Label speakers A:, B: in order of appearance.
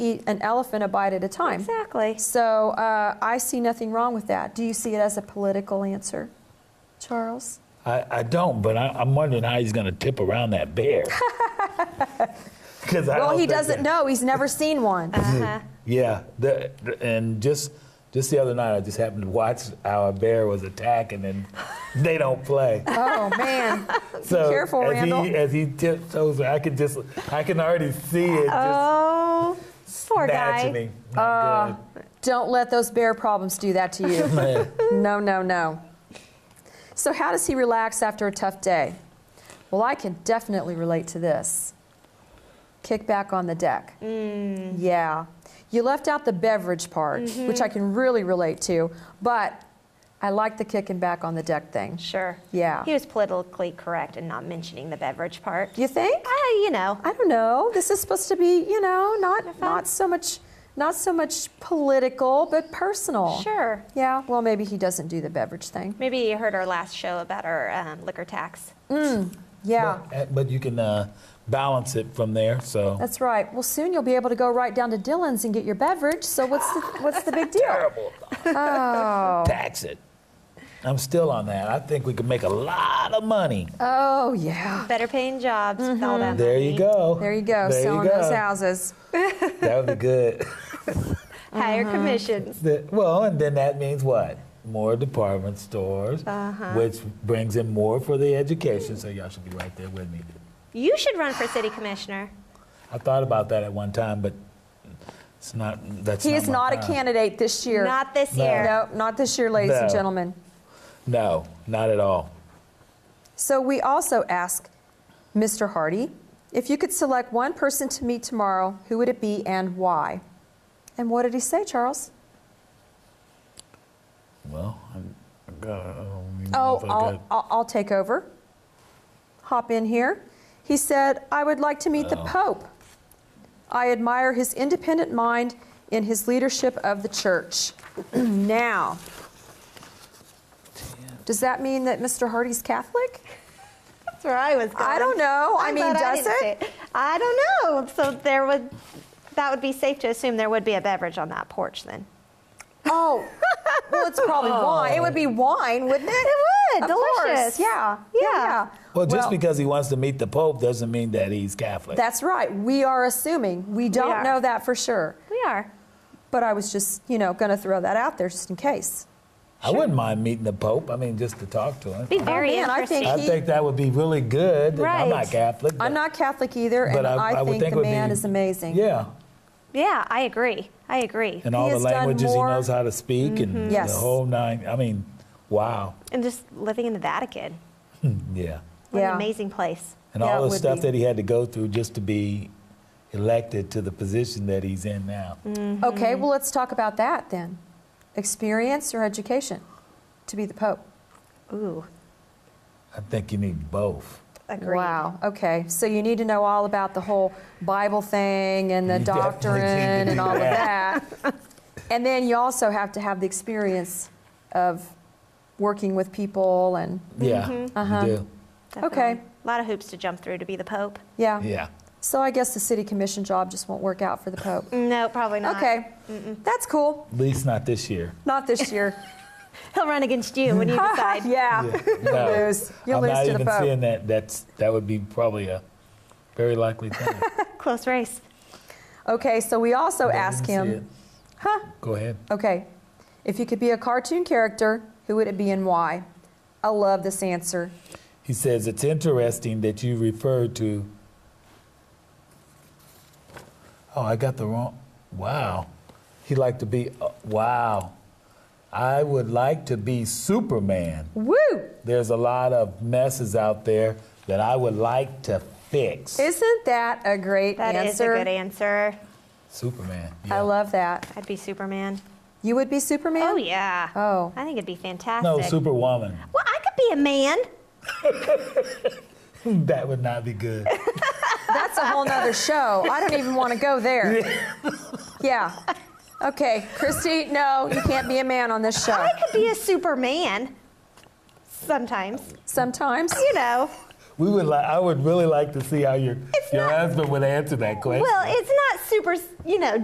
A: eat an elephant a bite at a time.
B: Exactly.
A: So uh, I see nothing wrong with that. Do you see it as a political answer, Charles?
C: I, I don't, but I, I'm wondering how he's going to tip around that bear. 'Cause I
A: Well,
C: don't
A: he
C: think
A: doesn't
C: that-
A: know. He's never seen one.
B: Uh-huh.
C: Yeah, the, and just just the other night, I just happened to watch how a bear was attacking, and they don't play.
A: oh man,
C: so
A: careful,
C: as
A: Randall.
C: he as he tiptoes, I can just I can already see it just
B: Oh, poor
C: snatching
B: guy.
C: him. Not
A: Oh, don't let those bear problems do that to you.
C: good.
A: No, no, no. So, how does he relax after a tough day? Well, I can definitely relate to this. Kick back on the deck.
B: Mm.
A: Yeah. You left out the beverage part,
B: Mm-hmm.
A: which I can really relate to, but I like the kicking back on the deck thing.
B: Sure.
A: Yeah.
B: He was politically correct in not mentioning the beverage part.
A: You think?
B: Ah, you know.
A: I don't know. This is supposed to be, you know, not
B: fun.
A: not so much not so much political, but personal.
B: Sure.
A: Yeah, well maybe he doesn't do the beverage thing.
B: Maybe you heard our last show about our um, liquor tax.
A: Yeah.
C: But, but you can uh, balance it from there. So
A: That's right. Well, soon you'll be able to go right down to Dylan's and get your beverage. So what's the, what's the big deal?
C: terrible.
A: Oh.
C: Tax it. I'm still on that. I think we could make a lot of money.
A: Oh yeah.
B: Better paying jobs with all that
C: there
B: money.
C: you go.
A: There you go.
C: There
A: selling
C: you go.
A: those houses.
C: That would be good.
B: Higher commissions.
C: The- well, and then that means what? More department stores,
A: Uh-huh.
C: which brings in more for the education. So y'all should be right there with me.
B: You should run for city commissioner.
C: I thought about that at one time, but it's not. That's
A: He is
C: my
A: not a
C: time.
A: candidate this year.
B: Not this
C: No.
B: year.
A: No, not this year, ladies and
C: No.
A: gentlemen.
C: No, not at all.
A: So we also ask Mr. Hardy, if you could select one person to meet tomorrow, who would it be and why? And what did he say, Charles?
C: Well, I'm, I got. I don't even know
A: Oh,
C: if I
A: I'll,
C: got-
A: I'll, I'll take over. Hop in here. He said, I would like to meet
C: Oh.
A: the Pope. I admire his independent mind and his leadership of the church. now, does that mean that Mr. Hardy's Catholic?
B: That's where I was going.
A: I don't know. I
B: I'm
A: mean,
B: glad
A: does
B: didn't
A: it?
B: say I don't know. So there would, that would be safe to assume there would be a beverage on that porch then.
A: Oh, well, it's probably
C: Oh.
A: wine. It would be wine, wouldn't it?
B: It
A: Of
B: would.
A: course.
B: Delicious.
A: Yeah.
B: Yeah.
A: Yeah.
C: well, just because he wants to meet the Pope doesn't mean that he's Catholic.
A: That's right. We are assuming. We don't
B: are.
A: know that for sure.
B: We are.
A: But I was just, you know, going to throw that out there just in case.
C: I wouldn't mind meeting the Pope. I mean, just to talk to him.
B: Be very
A: man, I
B: interesting.
A: think
C: I
A: he-
C: think that would be really good. and
B: Right.
C: I'm not Catholic.
A: I'm
C: but-
A: not Catholic either,
C: but
A: and I,
C: I, would
A: think,
C: think it
A: the
C: would
A: man
C: be-
A: is amazing.
C: Yeah,
B: yeah, I agree. I agree.
C: and
A: He
C: all the
A: has done
C: languages he
A: more- Mm-hmm.
C: knows how to speak and
A: Yes.
C: the whole nine. I mean, wow.
B: And just living in the Vatican.
C: Yeah.
B: What
A: Yeah.
B: an amazing place.
C: And
A: Yeah, it
C: all
A: would
C: the stuff
A: be.
C: that he had to go through just to be elected to the position that he's in now.
A: Mm. Okay, well, let's talk about that then. Experience or education to be the Pope?
B: Ooh,
C: I think you need both.
B: agreed.
A: Wow. Okay, so you need to know all about the whole Bible thing and the
C: You definitely need to
A: doctrine and
C: do
A: all of that. and then you also have to have the experience of working with people and,
C: Yeah.
A: Mm-hmm.
C: You do.
A: Uh-huh. Okay.
B: A lot of hoops to jump through to be the Pope.
A: yeah.
C: Yeah.
A: So I guess the city commission job just won't work out for the Pope.
B: No, probably not.
A: Okay, that's cool.
C: At least not this year.
A: Not this year.
B: He'll run against you when you decide.
A: yeah. You'll
C: No.
A: lose. You'll
C: I'm
A: lose
C: not
A: to the
C: even
A: Pope.
C: seeing that. That's that would be probably a very likely thing.
A: Oh,
B: Close race.
A: Okay, so we also
C: Don't
A: ask
C: even see
A: him,
C: it. Go ahead.
A: okay, if you could be a cartoon character, who would it be and why? I love this answer.
C: He says, It's interesting that you refer to. Oh, I got the wrong. Wow. He liked to be. uh, wow. I would like to be Superman.
A: Woo!
C: There's a lot of messes out there that I would like to fix.
A: Isn't that a great
B: That is
A: answer?
B: a good answer.
C: Superman.
A: I
C: yeah.
A: love that.
B: I'd be Superman.
A: You would be Superman?
B: Oh yeah.
A: Oh.
B: I think it'd be fantastic.
C: No, Superwoman.
B: Well, I could be a man.
C: That would not be good.
A: That's a whole nother show. I don't even want to go there. Yeah. Okay, Christy, no, you can't be a man on this show.
B: I could be a Superman. Sometimes,
A: Sometimes.
B: you know.
C: We would li- I would really like to see how your,
B: It's
C: your
B: not-
C: husband would answer that question.
B: Well, it's not super, you know,